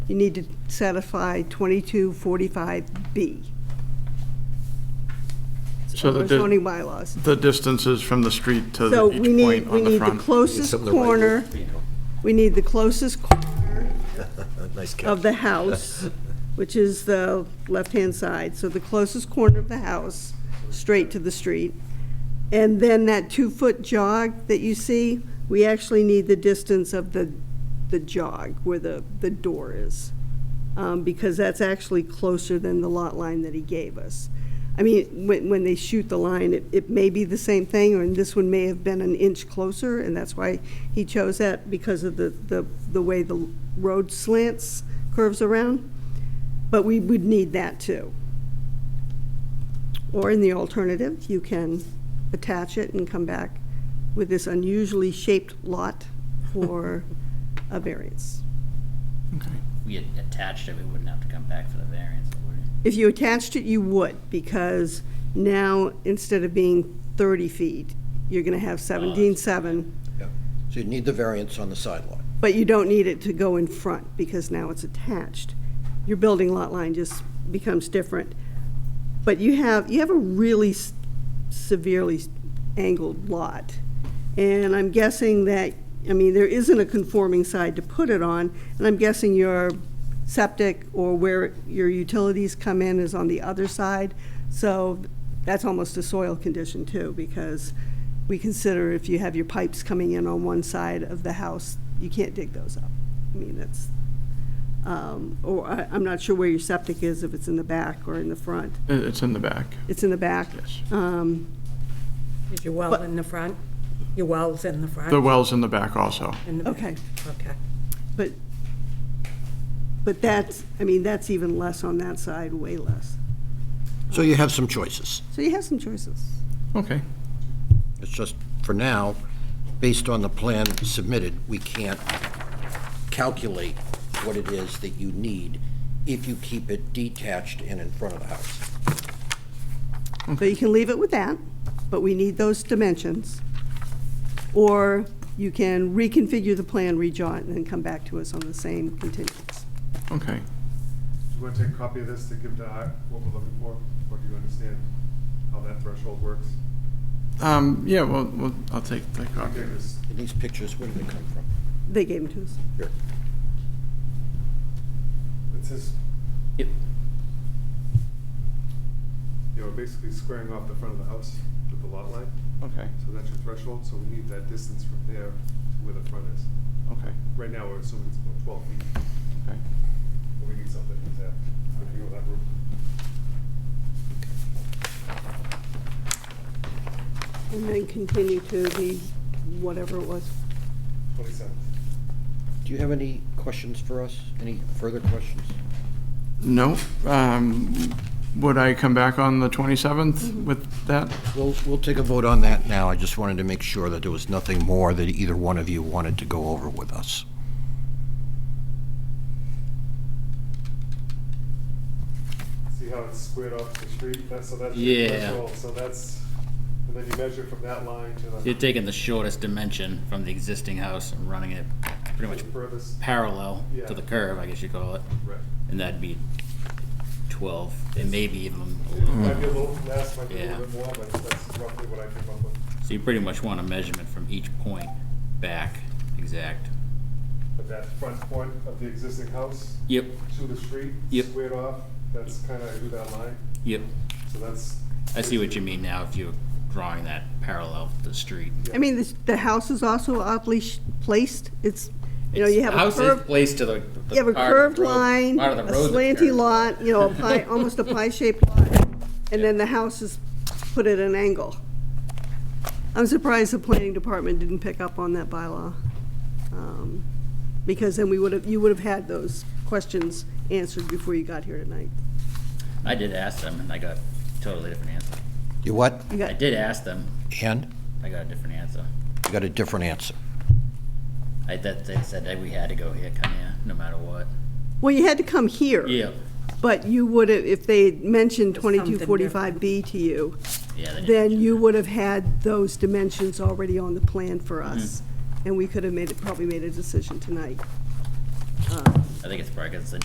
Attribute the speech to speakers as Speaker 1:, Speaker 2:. Speaker 1: you need to satisfy 2245B,
Speaker 2: So
Speaker 1: the
Speaker 2: the, di-
Speaker 1: zoning bylaws.
Speaker 2: the distances from the street to
Speaker 1: So
Speaker 2: the-
Speaker 1: we
Speaker 2: each
Speaker 1: need,
Speaker 2: point
Speaker 1: we
Speaker 2: on the
Speaker 1: need the
Speaker 2: front.
Speaker 1: closest
Speaker 3: Something about your
Speaker 1: corner, we need the closest corner
Speaker 3: Nice
Speaker 1: of
Speaker 3: catch.
Speaker 1: the house, which is the left-hand side, so the closest corner of the house, straight to the street. And then that two-foot jog that you see, we actually need the distance of the, the jog where the, the door is. Um, because that's actually closer than the lot line that he gave us. I mean, when, when they shoot the line, it, it may be the same thing, or this one may have been an inch closer, and that's why he chose that, because of the, the, the way the road slants, curves around. But we would need that too. Or in the alternative, you can attach it and come back with this unusually shaped lot for a variance.
Speaker 4: we had attached it, we wouldn't have to come back for the variance, would we?
Speaker 1: If you attached it, you would, because now, instead of being 30 feet, you're going to have 17.7,
Speaker 3: Yeah. So you need the variance on the sideline.
Speaker 1: but you don't need it to go in front, because now it's attached. Your building lot line just becomes different. But you have, you have a really s- severely s- angled lot. And I'm guessing that, I mean, there isn't a conforming side to put it on, and I'm guessing your septic or where your utilities come in is on the other side. So that's almost a soil condition too, because we consider if you have your pipes coming in on one side of the house, you can't dig those up. I mean, that's, um, or I, I'm not sure where your septic is, if it's in the back or in the front.
Speaker 2: It- Uh, It's in the back,
Speaker 1: It's in the back. Um,
Speaker 2: yes.
Speaker 5: Is your well in the front? Your well's in the front?
Speaker 2: The well's in the back also.
Speaker 5: In the back.
Speaker 1: Okay.
Speaker 5: Okay.
Speaker 1: But, but that's, I mean, that's even less on that side, way less.
Speaker 3: So you have some choices.
Speaker 1: So you have some choices.
Speaker 2: Okay,
Speaker 3: It's just, for now, based on the plan submitted, we can't calculate what it is that you need if you keep it detached and in front of the house.
Speaker 1: So you can leave it with that, but we need those dimensions. Or you can reconfigure the plan, redraw it, and then come back to us on the same contingents.
Speaker 2: okay.
Speaker 6: Do you want to take a copy of this to give to I, what we're looking for? Or do you understand how that threshold works?
Speaker 2: Um, yeah, well, well, I'll take the
Speaker 6: I
Speaker 2: copy.
Speaker 6: think this,
Speaker 3: And these pictures, where do they come from?
Speaker 1: They gave them to us.
Speaker 3: Here.
Speaker 6: it says,
Speaker 4: Yep.
Speaker 6: you know, we're basically squaring off the front of the house with the lot line.
Speaker 2: Okay,
Speaker 6: So that's your threshold, so we need that distance from there to where the front is.
Speaker 2: okay,
Speaker 6: Right now, we're assuming it's about twelve feet,
Speaker 2: okay.
Speaker 6: but we need something to tell, I think of that room.
Speaker 1: And then continue to the, whatever it was.
Speaker 6: Twenty-seven.
Speaker 3: Do you have any questions for us? Any further questions?
Speaker 2: No, um, would I come back on the
Speaker 1: Mm-hmm.
Speaker 2: 27th with that?
Speaker 3: We'll, we'll take a vote on that now. I just wanted to make sure that there was nothing more that either one of you wanted to go over with us.
Speaker 6: See how it's squared off the street, that's, so that's
Speaker 4: Yeah.
Speaker 6: your threshold, so that's, and then you measure from that line to
Speaker 4: You're
Speaker 6: the
Speaker 4: taking the shortest dimension from the existing house and running it pretty much
Speaker 6: furthest,
Speaker 4: parallel to the
Speaker 6: Yeah.
Speaker 4: curve, I guess you call it,
Speaker 6: right.
Speaker 4: and that'd be twelve, and maybe even a
Speaker 6: It
Speaker 4: little.
Speaker 6: Might be a little less, might be a
Speaker 4: Yeah.
Speaker 6: little bit more, but that's roughly what I came up with.
Speaker 4: So you pretty much want a measurement from each point back, exact.
Speaker 6: But that front point of the existing house
Speaker 4: Yep,
Speaker 6: to the street,
Speaker 4: Yep.
Speaker 6: squared off, that's kind of who that line,
Speaker 4: yep.
Speaker 6: so that's.
Speaker 4: I see what you mean now, if you're drawing that parallel to the street.
Speaker 1: I mean, this- the house is also oddly sh- placed. It's, you know, you have
Speaker 4: The
Speaker 1: a
Speaker 4: house is
Speaker 1: curved
Speaker 4: placed to the. the
Speaker 1: You have a
Speaker 4: part of the
Speaker 1: curved
Speaker 4: road-
Speaker 1: line,
Speaker 4: part of the
Speaker 1: a
Speaker 4: road that's
Speaker 1: slanty
Speaker 4: curved.
Speaker 1: lot, you know, a pie, almost a pie-shaped lot, and then the house is put at an angle. I'm surprised the planning department didn't pick up on that bylaw, um, because then we would have, you would have had those questions answered before you got here tonight.
Speaker 4: I did ask them, and I got totally different answer.
Speaker 3: You what?
Speaker 1: You
Speaker 4: I
Speaker 1: got,
Speaker 4: did ask them,
Speaker 3: And
Speaker 4: I got a different answer.
Speaker 3: you got a different answer.
Speaker 4: I that they said that we had to go here, come here, no matter what.
Speaker 1: well, you had to come here.
Speaker 4: Yeah,
Speaker 1: But you would have, if they had mentioned
Speaker 5: Something different.
Speaker 1: 2245B to you,
Speaker 4: yeah. They
Speaker 1: then
Speaker 4: did.
Speaker 1: you would have had those dimensions already on the plan for us, and we could have made, it probably made a decision tonight. Um,
Speaker 4: I think it's probably because the